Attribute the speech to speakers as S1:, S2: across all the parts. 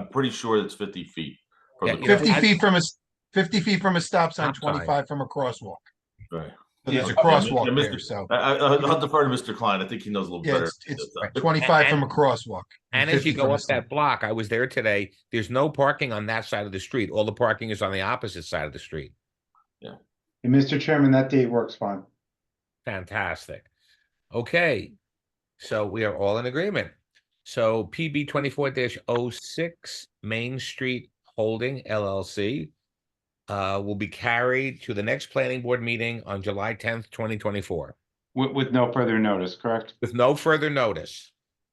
S1: pretty sure it's fifty feet. from
S2: Yeah,
S1: the
S2: you know,
S1: curb.
S3: Fifty
S2: I-
S3: feet from a, s- fifty feet from a stop sign,
S2: Stop sign.
S3: twenty-five from a crosswalk.
S1: Right.
S3: So there's a
S1: Yeah, okay, yeah,
S3: crosswalk
S1: Mr.
S3: there, so,
S1: I, I, I'll defer to Mr. Klein. I think he knows a little
S3: yeah,
S1: better.
S3: it's, it's
S1: But, uh,
S3: twenty-five from a crosswalk.
S2: And as you
S3: 50 from
S2: go
S3: the
S2: up that block, I was there today, there's no parking on that side of the street. All the parking is on the opposite side of the street.
S4: And Mr. Chairman, that date works fine.
S2: Fantastic. Okay, so we are all in agreement. So PB twenty-four 6 Main Street Holding LLC uh, will be carried to the next planning board meeting on July tenth, twenty twenty-four,
S4: With, with no further notice, correct?
S2: with no further notice.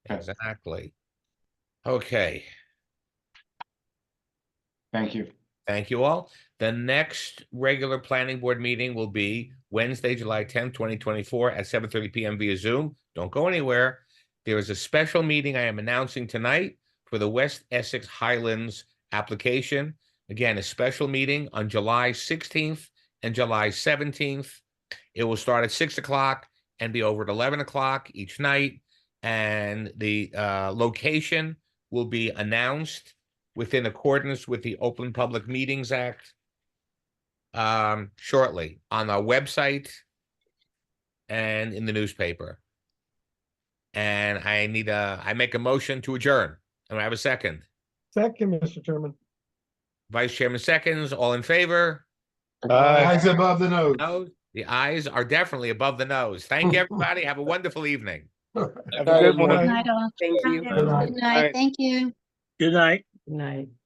S4: Okay.
S2: Exactly. Okay.
S4: Thank you.
S2: Thank you all. The next regular planning board meeting will be Wednesday, July tenth, twenty twenty-four at seven thirty PM via Zoom. Don't go anywhere. There is a special meeting I am announcing tonight for the West Essex Highlands application. Again, a special meeting on July sixteenth and July seventeenth. It will start at six o'clock and be over at eleven o'clock each night. And the uh location will be announced within accordance with the Open Public Meetings Act um, shortly on our website and in the newspaper. And I need a, I make a motion to adjourn. And I have a second.
S5: Second, Mr. Chairman.
S2: Vice Chairman seconds, all in favor?
S5: Eyes above the nose.
S2: No, the eyes are definitely above the nose. Thank you, everybody. Have a wonderful evening.
S5: Have a good
S6: Good
S5: one.
S6: night, all.
S7: Thank you.
S6: Good night, thank you.
S5: Good night.
S7: Good night.